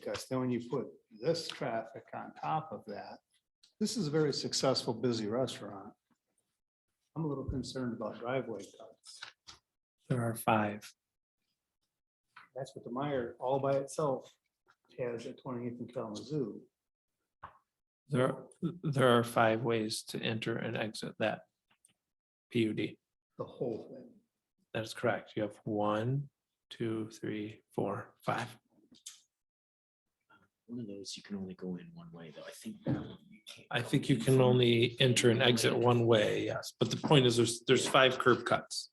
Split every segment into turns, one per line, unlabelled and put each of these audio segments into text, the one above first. because then when you put this traffic on top of that, this is a very successful, busy restaurant. I'm a little concerned about driveway cuts.
There are five.
That's what the Meyer all by itself has at 28th and Kalamazoo.
There, there are five ways to enter and exit that PUD.
the whole thing.
That is correct. You have one, two, three, four, five.
One of those you can only go in one way, though. I think that one you can't.
I
go
think
in
you can
from-
only enter and exit one way, yes. But the point is, there's, there's five curb cuts.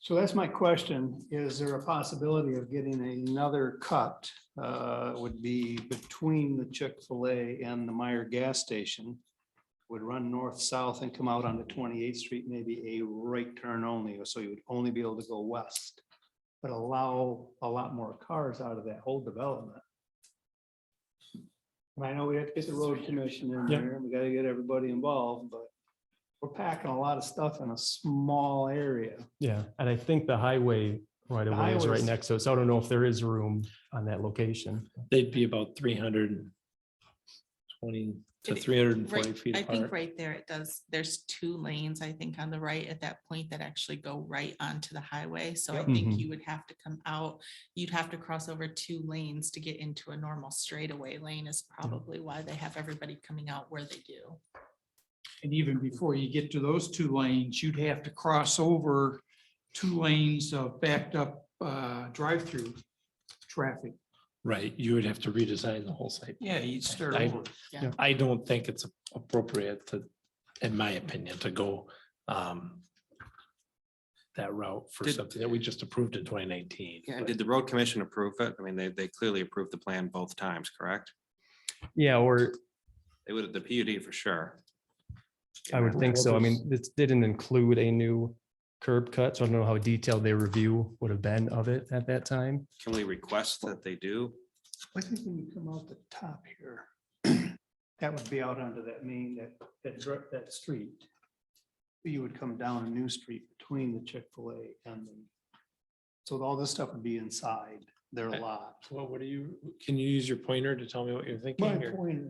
So that's my question. Is there a possibility of getting another cut? uh, Would be between the Chick-fil-A and the Meyer gas station? Would run north-south and come out onto 28th Street, maybe a right turn only, so you would only be able to go west. But allow a lot more cars out of that whole development. And I know we have to get the road commission in
Yeah.
there, we gotta get everybody involved, but we're packing a lot of stuff in a small area.
Yeah, and I think the highway right
The
away is right
highways-
next to it, so I don't know if there is room on that location.
They'd be about three hundred and twenty to
It-
three hundred and forty
Right,
feet
I think
apart.
right there it does, there's two lanes, I think, on the right at that point that actually go right onto the highway. So I
Yep.
think
Mhm.
you would have to come out, you'd have to cross over two lanes to get into a normal straightaway lane is probably why they have everybody coming out where they do.
And even before you get to those two lanes, you'd have to cross over two lanes of backed up uh, drive-through traffic.
Right, you would have to redesign the whole site.
Yeah, you'd start
I-
over.
I don't think it's appropriate to, in my opinion, to go um that route for
Did-
something that we just approved in twenty nineteen.
Yeah, and did the road commission approve it? I mean, they, they clearly approved the plan both times, correct?
Yeah, or
They would, the PUD for sure.
I would think so. I mean, this didn't include a new curb cut, so I don't know how detailed their review would have been of it at that time.
Can we request that they do?
I think when you come out the top here, that would be out onto that main, that, that, dr- that street. You would come down a new street between the Chick-fil-A and the. So all this stuff would be inside their
Okay.
lot.
Well, what do you, can you use your pointer to tell me what you're
My
thinking? or-
point,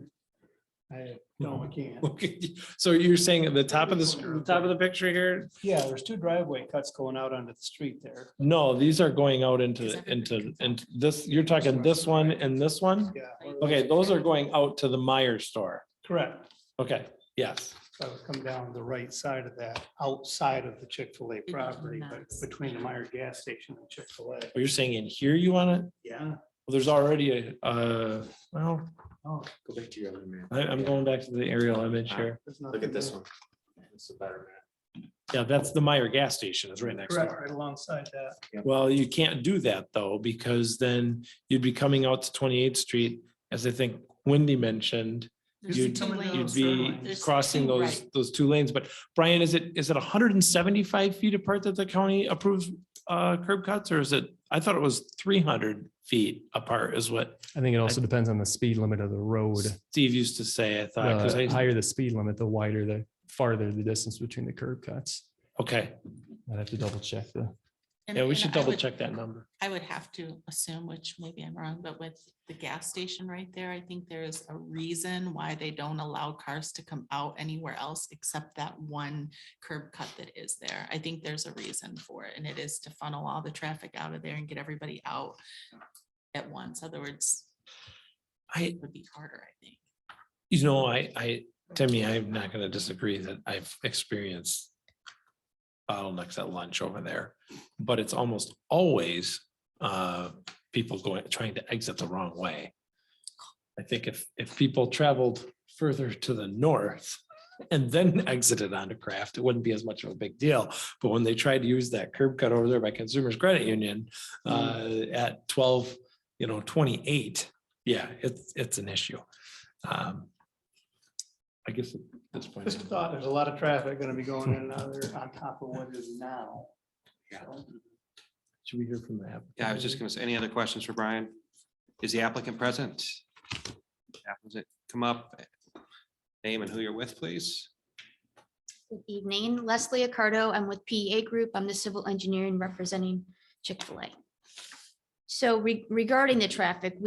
I, no, I can't.
Okay, So you're saying at the top of this, the top of the picture here?
Yeah, there's two driveway cuts going out onto the street there.
No, these are going out
Is
into,
that-
into, and this, you're talking this one and this one?
Yeah.
Okay, those are going out to the Meyer store.
Correct.
Okay, yes.
I would come down the right side of that, outside of the Chick-fil-A
be
property, but
nice.
between the Meyer gas station and Chick-fil-A.
But You're saying in here you want it?
Yeah.
Well, There's already a, uh, well,
Oh,
Go back to your other man.
I, I'm going back to the aerial image here.
there's
Look
nothing
at this
there.
one. It's a better
Yeah, that's the Meyer gas station is right next
Correct,
door.
right alongside that.
Well, you can't do that though, because then you'd be coming out to twenty-eighth street, as I think Wendy mentioned.
There's
You'd-
two
You'd
lanes.
be
Oh, There's
crossing
two
those,
right.
those two lanes, but Brian, is it, is it hundred and seventy-five feet apart that the county approves uh, curb cuts? Or is it, I thought it was three hundred feet apart is what
I think it also depends on the speed limit of the road.
Steve used to say, I thought, because Uh,
The
I,
higher the speed limit, the wider the, farther the distance between the curb cuts.
okay,
I'd have to double check the.
And-
yeah, we
and
should
I
double
would-
check that number.
I would have to assume, which maybe I'm wrong, but with the gas station right there, I think there is a reason why they don't allow cars to come out anywhere else except that one curb cut that is there. I think there's a reason for it, and it is to funnel all the traffic out of there and get everybody out at once. Other words,
I,
it would be harder, I think.
you know, I, I, Timmy, I'm not gonna disagree that I've experienced bottlenecks at lunch over there, but it's almost always uh, people going, trying to exit the wrong way. I think if, if people traveled further to the north and then exited onto Craft, it wouldn't be as much of a big deal. But when they tried to use that curb cut over there by Consumers Credit Union uh, at twelve, you know, twenty-eight, yeah, it's, it's an issue. Um, I guess at this point.
Just a thought, there's a lot of traffic gonna be going in and out of there on top of what is now.
Should we hear from the app?
Yeah, I was just gonna say, any other questions for Brian? Is the applicant present? Applicant, Come up, name and who you're with, please.
Good evening, Leslie Accardo. I'm with PEA Group. I'm the civil engineer and representing Chick-fil-A. So re- regarding the traffic,